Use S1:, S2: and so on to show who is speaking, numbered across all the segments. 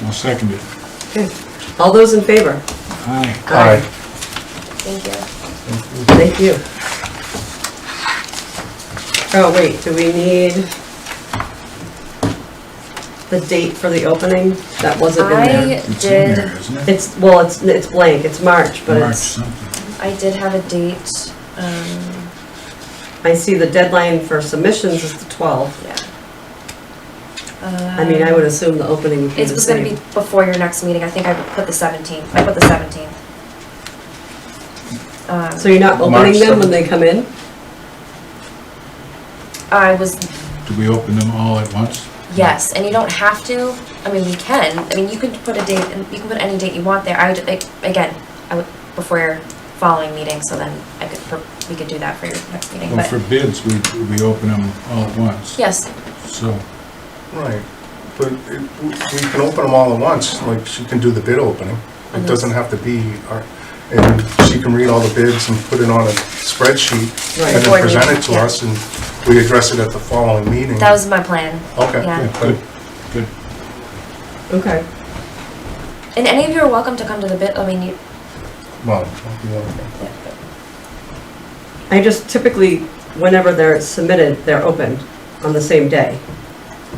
S1: I'll second it.
S2: Okay. All those in favor?
S1: Aye.
S2: Aye.
S3: Thank you.
S2: Thank you. Oh, wait, do we need the date for the opening? That wasn't in there.
S3: I
S1: It's in
S3: did,
S1: there, isn't it?
S2: It's, well, it's, it's blank, it's March, but
S1: March
S2: it's,
S1: something.
S3: I did have a date, um,
S2: I see the deadline for submissions is the 12th.
S3: yeah. Um,
S2: I mean, I would assume the opening would be
S3: It
S2: the
S3: was gonna be
S2: same.
S3: before your next meeting, I think I put the seventeenth, I put the seventeenth.
S2: So
S3: Um,
S2: you're not
S4: March
S2: opening them when
S4: 7th.
S2: they come in?
S3: I was,
S1: Do we open them all at once?
S3: yes, and you don't have to, I mean, you can, I mean, you could put a date, and you can put any date you want there, I, would- like, again, I would, before your following meeting, so then I could, pro- we could do that for your next meeting,
S1: Well, for
S3: but,
S1: bids, we, we open them all at once.
S3: yes,
S1: So,
S4: Right, but it- we we can open them all at once, like she can do the bid opening. It doesn't have to be, our- and she can read all the bids and put it on a spreadsheet
S2: Right.
S4: and
S3: Before
S4: then present it to
S3: meeting, yeah.
S4: us, and we address it at the following meeting.
S3: that was my plan.
S4: Okay,
S3: yeah.
S1: yeah, good, good.
S2: Okay.
S3: And any of you are welcome to come to the bid, I mean, you,
S4: Well, that'd be wonderful.
S2: I just typically, whenever they're submitted, they're opened on the same day.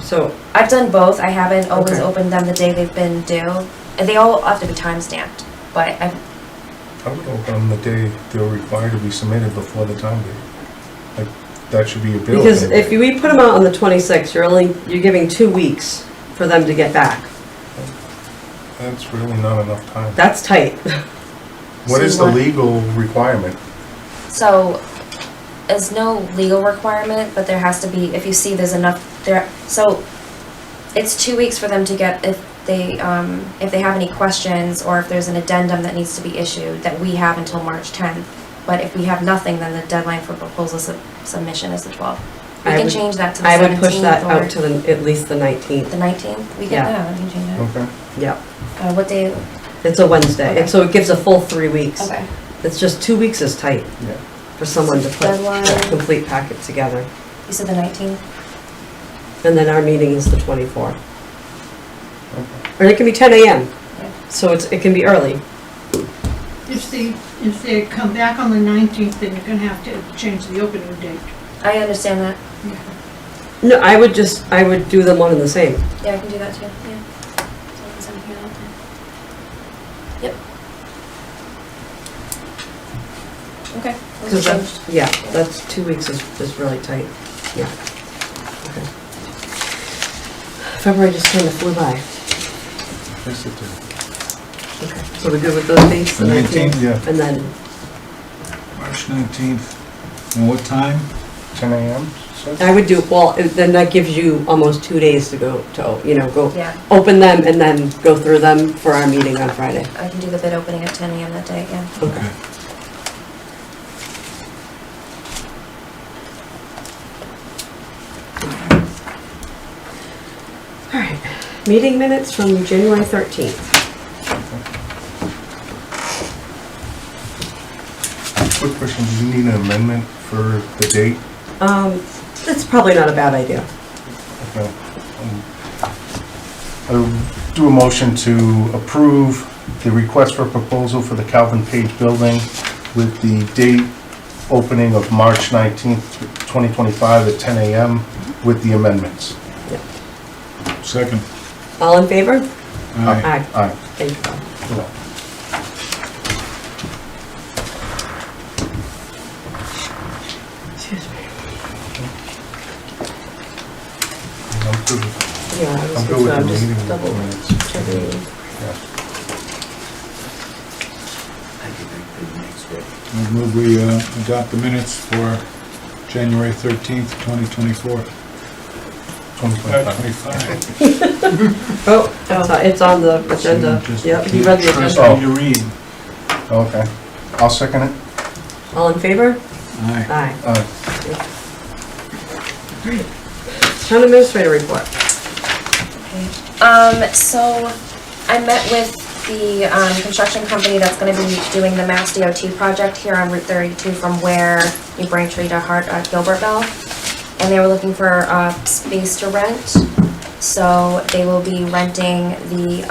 S2: So,
S3: I've done both, I haven't always
S2: Okay.
S3: opened them the day they've been due, and they all have to be time stamped, but I've,
S4: I would open them the day they're required to be submitted before the time date. Like, that should be a bid
S2: because
S4: opening.
S2: if you- we put them out on the 26th, you're only, you're giving two weeks for them to get back.
S4: That's really not enough time.
S2: That's tight.
S4: What
S3: So
S4: is the
S3: what-
S4: legal requirement?
S3: So, there's no legal requirement, but there has to be, if you see there's enough, there, so, it's two weeks for them to get, if they, um, if they have any questions, or if there's an addendum that needs to be issued, that we have until March tenth. But if we have nothing, then the deadline for proposal sub- submission is the twelfth. We
S2: I
S3: can
S2: would-
S3: change that to the
S2: I would push that out
S3: seventeenth
S2: to
S3: or
S2: the, at least the 19th.
S3: the nineteenth, we can,
S2: Yeah.
S3: yeah, we can change that.
S4: Okay.
S2: Yeah,
S3: Uh, what day,
S2: it's a Wednesday, and
S3: Okay.
S2: so it gives a full three weeks.
S3: okay,
S2: It's just two weeks is tight
S4: Yeah.
S2: for someone to put a
S3: Deadline.
S2: complete packet together.
S3: you said the nineteenth?
S2: And then our meeting is the 24th.
S4: Okay.
S2: Or it can be 10 AM,
S3: Yeah.
S2: so it's, it can be early.
S5: If they, if they come back on the 19th, then you're gonna have to change the opening date.
S3: I understand that,
S2: No, I would just, I would do them one and the same.
S3: yeah, I can do that too, yeah. So I can send it out. Okay.
S2: Because that's, yeah, that's, two weeks is, is really tight, yeah. Okay. February just kind of flew by.
S4: Yes, it did.
S2: Okay. So we're good with those dates, the
S1: The 19th,
S2: 19th?
S4: yeah.
S2: And then,
S1: March 19th. And what time?
S4: 10 a.m. so-
S2: I would do, well, it- then that gives you almost two days to go, to, you know, go,
S3: Yeah,
S2: open them and then go through them for our meeting on Friday.
S3: I can do the bid opening at ten AM that day, yeah.
S2: Okay. All right, meeting minutes from January 13th.
S4: Quick question, do you need an amendment for the date?
S2: Um, That's probably not a bad idea.
S4: Okay. Um, I'll do a motion to approve the request for proposal for the Calvin Page Building with the date opening of March 19th, 2025 at 10 a.m. with the amendments.
S1: Second.
S2: All in favor?
S1: Aye.
S2: Aye.
S4: Aye.
S2: Thank you. Bob.
S5: Excuse me.
S4: I'm good with-
S2: Yeah, I was
S4: I'm good
S2: just-
S4: with
S2: I'm
S4: the
S2: just
S4: meeting
S2: double
S4: minutes.
S2: checking.
S4: Yeah.
S1: I move we uh, adopt the minutes for January 13th, 2024.
S4: 2025.
S1: 25.
S2: Oh, it's on- it's on the agenda.
S1: Just
S2: Yep, you read the
S1: can't trust
S2: agenda.
S1: what you read.
S4: Okay. I'll second it.
S2: All in favor?
S1: Aye.
S2: Aye.
S4: Aye.
S2: Town administrator report.
S3: Um, so I met with the, um, construction company that's gonna be doing the Mass DOT project here on Route thirty-two from where New Braintree to Hart, uh, Gilbertville. And they were looking for, uh, space to rent, so they will be renting the